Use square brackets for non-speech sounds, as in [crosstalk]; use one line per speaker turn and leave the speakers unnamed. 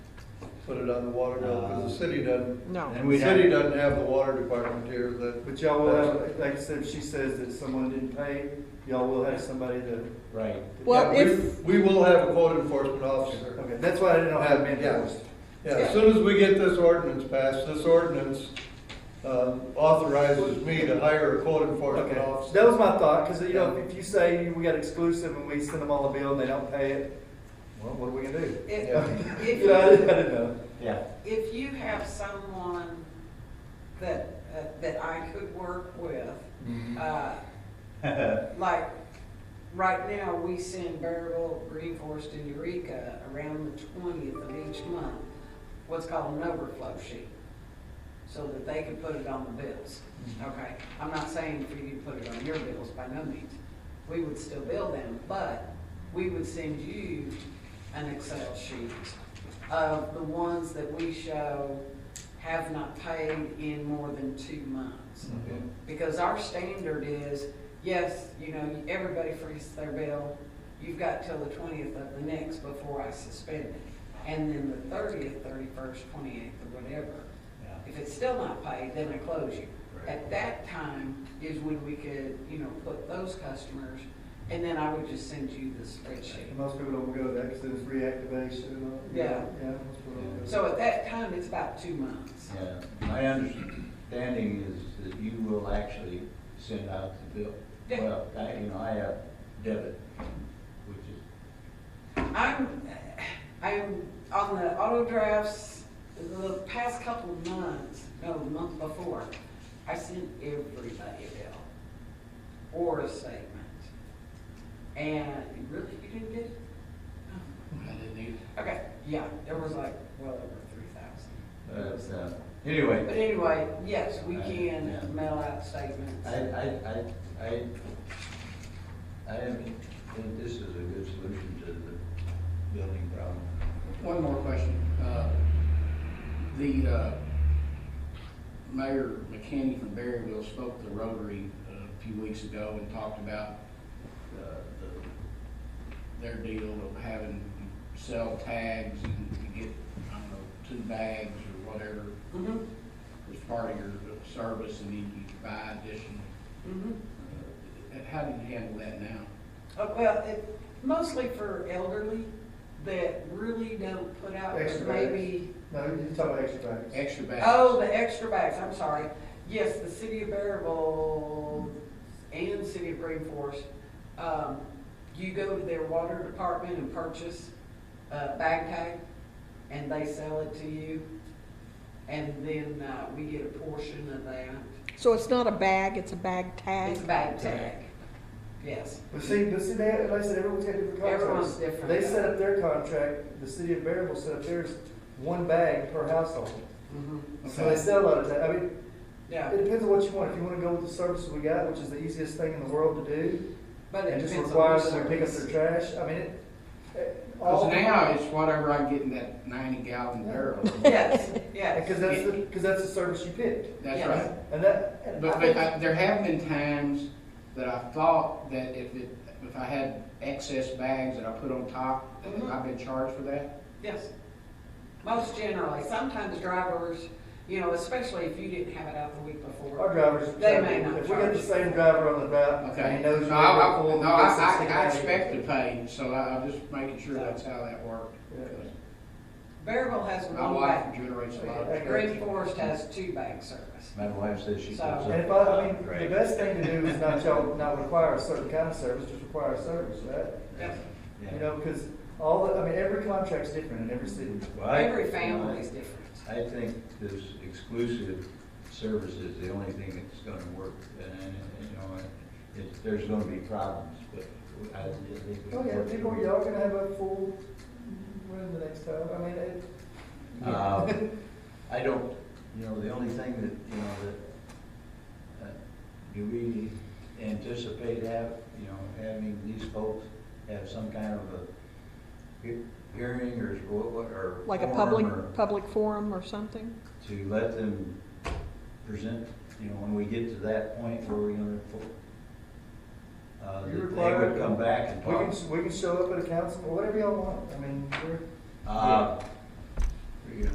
put it on the water bill, because the city doesn't,
Uh,
No.
And
the
we'd
city
have,
doesn't have the water department here that,
But y'all will have, like I said, if she says that someone didn't pay, y'all will have somebody to,
right,
Well,
Yeah, we-
if,
We will have a code enforcement officer.
okay, that's why I didn't know how to manage
Yes.
it.
Yeah, as soon as we get this ordinance passed, this ordinance uh, authorizes me to hire a code enforcement
Okay,
officer.
that was my thought, because, you know, if you say we got exclusive and we send them all a bill and they don't pay it, well, what are we gonna do?
Yeah.
if,
You know, I
if,
didn't I didn't know.
yeah.
if you have someone that, uh, that I could work with, uh, like, right now, we send Bearable, Green Forest, and Eureka around the twentieth of each month, what's called an overflow sheet, so that they can put it on the bills. Okay, I'm not saying for you to put it on your bills, by no means. We would still bill them, but we would send you an Excel sheet of the ones that we show have not paid in more than two months.
Mm-hmm.
Because our standard is, yes, you know, everybody freezes their bill, you've got till the twentieth of the next before I suspend it. And then the thirtieth, thirty-first, twenty-eighth, or whatever. If it's still not paid, then I close you. At that time is when we could, you know, put those customers, and then I would just send you the spreadsheet.
And Most people don't go there, because it's reactivation and all.
Yeah.
Yeah. most people don't go.
So at that time, it's about two months.
Yeah, my understanding is that you will actually send out the bill.
Yeah.
Well, I, you know, I have debit, which is,
I'm, I'm on the auto drafts, the past couple of months, no, the month before, I sent everybody a bill or a statement. And really, you didn't get it? Oh.
I didn't either.
Okay, yeah, there was like well over three thousand.
but, uh,
But
anyway,
anyway, yes, we
I- yeah.
can mail out statements.
I, I, I, I, I am- think this is a good solution to the building problem.
One more question. Uh, The uh, Mayor McKinney from Berryville spoke to Rotary uh, a few weeks ago and talked about uh, the- their deal of having to sell tags and to get, I don't know, two bags or whatever
Mhm,
as part of your service and then you buy additional.
mhm.
Uh, How do you handle that now?
Oh, Well, it, mostly for elderly that really don't put out
Extra bags.
maybe,
No, you're talking about extra bags.
Extra bags?
oh, the extra bags, I'm sorry. Yes, the city of Maryville and city of Green Forest, um, you go to their water department and purchase a bag tag and they sell it to you. And then, uh, we get a portion of that.
So it's not a bag, it's a bag tag?
It's a bag tag, yes.
But see, but see, they, like I said, everyone's got different contracts.
Everyone's different.
They set up their contract, the city of Bearable set up theirs, one bag per household.
Mhm.
So they sell a lot of that, I mean,
Yeah,
it depends on what you want, if you wanna go with the service we got, which is the easiest thing in the world to do,
but it
and just
depends on
require
the
them to pick up their
service.
trash, I mean, it- it. all-
Because now it's whatever I get in that ninety gallon barrel.
Yes,
[laughs]
yes.
Because that's, the- because that's the service you picked,
That's
Yes.
right.
and that, and I
But, but
think-
I, there have been times that I thought that if it, if I had excess bags that I put on top, that
Mhm.
I've been charged for that.
Yes. Most generally, sometimes drivers, you know, especially if you didn't have it out the week
our
before.
drivers.
They may not
If we got the
charge.
same driver on the route, and
Okay.
he knows.
No,
you're
I,
gonna
I,
pull
no,
him,
I,
he's gonna
I
stick it
I
out.
expect to pay, so I, I'm just making sure that's how that worked.
Yeah.
Bearville has
My
one
wife
bag.
generates a lot
Yeah.
of.
Green Forest has two bag service.
My wife says she puts
So-
up.
And if I, I mean, the
Right.
best thing to do is not tell, not require a certain kind of service, just require a service, right?
Yep.
Yeah.
You know, because all the, I mean, every contract's different in every city.
Well, I-
Every family is different.
I think this exclusive service is the only thing that's gonna work, and, and, you know, it, it- there's gonna be problems, but I think we can
Oh, yeah,
work it.
people, y'all gonna have a full, when the next time, I mean, it.
Um,
[laughs]
I don't, you know, the only thing that, you know, that, uh, do we anticipate have, you know, having these folks have some kind of a he- hearing or, what- or.
Like a
forum
public,
or-
public forum or something?
to let them present, you know, when we get to that point where we're gonna, uh, that
You
they
require-
would come back and
We
talk.
can, we can show up at a council, or whatever y'all want, I mean, we're,
Uh,